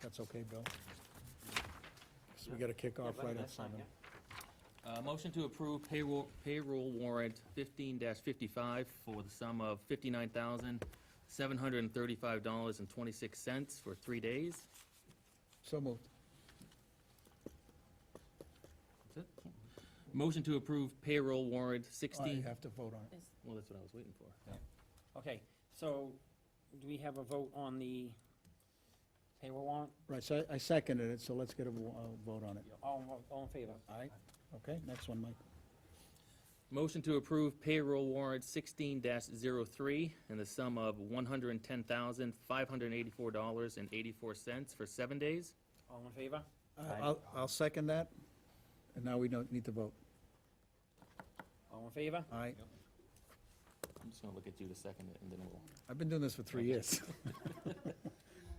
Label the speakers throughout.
Speaker 1: That's okay, Bill? So we gotta kick off right at
Speaker 2: That's fine,
Speaker 1: seven.
Speaker 2: yeah.
Speaker 3: Uh, motion to approve payroll, payroll warrant fifteen fifty-five for the sum of fifty-nine thousand, seven hundred and thirty-five dollars and twenty-six cents for three days.
Speaker 1: So moved.
Speaker 3: That's it. Motion to approve payroll warrant
Speaker 1: Oh, You
Speaker 3: sixteen,
Speaker 1: have to vote on it.
Speaker 3: well, that's what I was waiting for.
Speaker 2: Okay, so do we have a vote on the payroll warrant?
Speaker 1: Right, so I I seconded it, so let's get a wo- a vote on it.
Speaker 2: All, all in favor?
Speaker 1: Aye. Okay, next one, Mike.
Speaker 3: Motion to approve payroll warrant sixteen 3 in the sum of one hundred and ten thousand, five hundred and eighty-four dollars and eighty-four cents for seven days.
Speaker 2: All in favor?
Speaker 1: I'll, I'll second that, and now we don't need to vote.
Speaker 2: All in favor?
Speaker 1: Aye.
Speaker 3: I'm just gonna look at you to second it, and then we'll,
Speaker 1: I've been doing this for three years.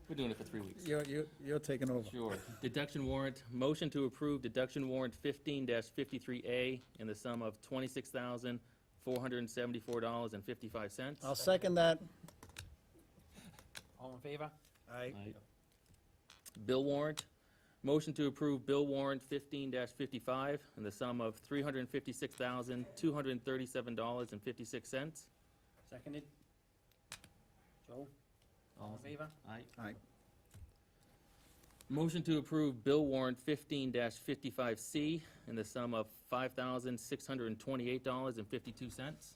Speaker 3: we're doing it for three weeks.
Speaker 1: You're, you're- you're taking over.
Speaker 3: Sure. Deduction warrant, motion to approve deduction warrant fifteen fifty-three A in the sum of twenty-six thousand, four hundred and seventy-four dollars and fifty-five cents.
Speaker 1: I'll second that.
Speaker 2: All in favor?
Speaker 1: Aye.
Speaker 3: Bill warrant, motion to approve bill warrant fifteen fifty-five in the sum of three hundred and fifty-six thousand, two hundred and thirty-seven dollars and fifty-six cents.
Speaker 2: Seconded? Joe? All in favor?
Speaker 1: Aye.
Speaker 3: Motion to approve bill warrant fifteen fifty-five C in the sum of five thousand, six hundred and twenty-eight dollars and fifty-two cents.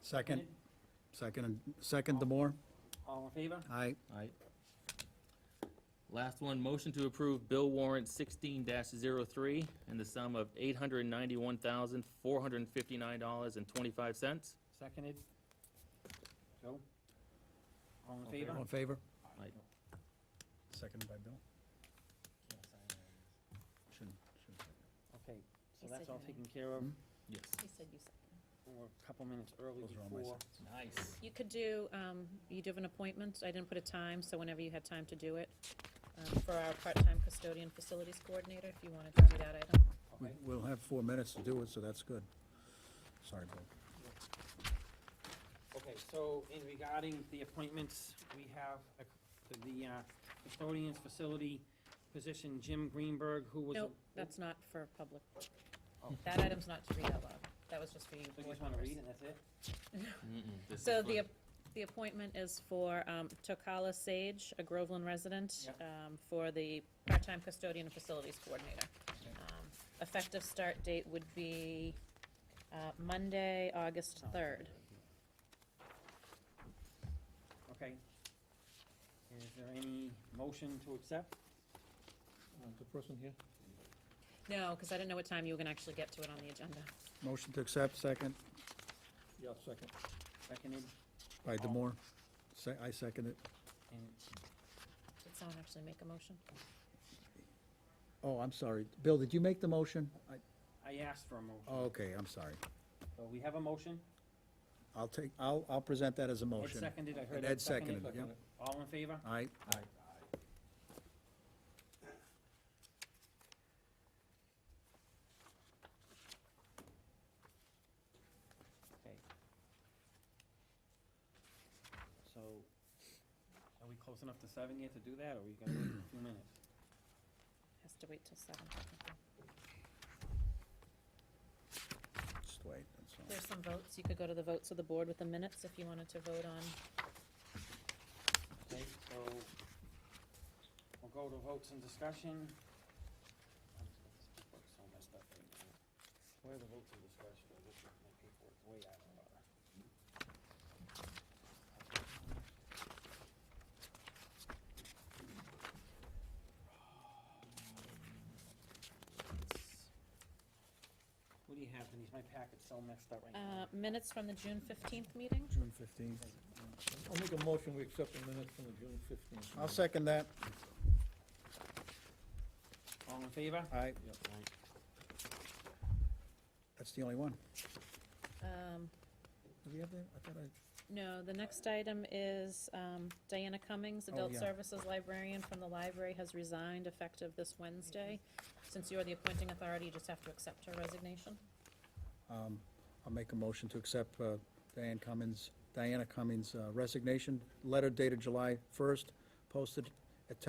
Speaker 1: Second, second, and second Demore?
Speaker 2: All in favor?
Speaker 1: Aye.
Speaker 3: Last one, motion to approve bill warrant sixteen 3 in the sum of eight hundred and ninety-one thousand, four hundred and fifty-nine dollars and twenty-five cents.
Speaker 2: Seconded? Joe? All in
Speaker 3: All in
Speaker 2: favor?
Speaker 1: All in favor?
Speaker 3: Aye.
Speaker 1: Seconded by Bill? Shouldn't, shouldn't.
Speaker 2: Okay, so
Speaker 4: He
Speaker 2: that's
Speaker 4: said
Speaker 2: all
Speaker 4: aye.
Speaker 2: taken care of.
Speaker 3: Yes.
Speaker 4: He said you second.
Speaker 2: We're a couple minutes early
Speaker 1: Those are on my
Speaker 2: before.
Speaker 3: Nice.
Speaker 4: You could do, um, you do have an appointment, I didn't put a time, so whenever you had time to do it, um, for our part-time custodian facilities coordinator, if you wanted to do that
Speaker 1: We-
Speaker 4: item.
Speaker 2: Okay,
Speaker 1: We'll have four minutes to do it, so that's good. Sorry, Bill.
Speaker 2: Okay, so in regarding the appointments, we have a- the uh, custodian's facility position, Jim Greenberg, who was. a-
Speaker 4: Nope, that's not for public.
Speaker 2: Oh.
Speaker 4: That item's not to read out loud, that was just for you.
Speaker 2: So you
Speaker 4: board
Speaker 2: just wanna
Speaker 4: members.
Speaker 2: read and that's it?
Speaker 4: So the, ap- the appointment is for um, Tokala Sage, a Groveland resident, um, for the part-time custodian and facilities coordinator. Um, Effective start date would be uh, Monday, August
Speaker 2: Oh,
Speaker 4: 3rd.
Speaker 2: Okay. Is there any motion to accept?
Speaker 1: Uh, The person here?
Speaker 4: No, because I didn't know what time you were going to actually get to it on the agenda.
Speaker 1: Motion to accept, second
Speaker 2: Yeah, second. Seconded,
Speaker 1: by Demore. Se- I second it.
Speaker 2: and
Speaker 4: Did someone actually make a motion?
Speaker 1: Oh, I'm sorry. Bill, did you make the motion? I-
Speaker 2: I asked for a motion.
Speaker 1: oh, Okay, I'm sorry.
Speaker 2: So we have a motion.
Speaker 1: I'll take, I'll, I'll present that as a
Speaker 2: Ed
Speaker 1: motion.
Speaker 2: seconded, I heard
Speaker 1: And
Speaker 2: Ed
Speaker 1: Ed seconded,
Speaker 2: seconded.
Speaker 1: yep.
Speaker 2: All in favor?
Speaker 1: Aye.
Speaker 2: Okay. So, are we close enough to seven yet to do that, or we gonna wait a few minutes?
Speaker 4: Has to wait till 7.
Speaker 1: Just wait, that's all.
Speaker 4: There's some votes, you could go to the votes of the board with the minutes if you wanted to vote on.
Speaker 2: Okay, so, we'll go to votes and discussion. Paperwork's so messed up right now. Where are the votes and discussion? Oh, This is my paperwork, way out of order. What do you have, Denise? My packet's so messed up right now.
Speaker 4: Uh, Minutes from the June 15th meeting?
Speaker 1: June fifteenth.
Speaker 5: I'll make a motion, we accept the minutes from the June fifteenth.
Speaker 1: I'll second that.
Speaker 2: All in favor?
Speaker 1: Aye. That's the only one.
Speaker 4: Um,
Speaker 1: Do we have that? I thought I,
Speaker 4: No, the next item is um, Diana Cummings,
Speaker 1: Oh,
Speaker 4: Adult
Speaker 1: yeah.
Speaker 4: Services Librarian from the library, has resigned effective this Wednesday. Since you're the appointing authority, you just have to accept her resignation.
Speaker 1: um, I'll make a motion to accept uh, Diane Cummins, Diana Cummins' uh, resignation, letter dated July first, posted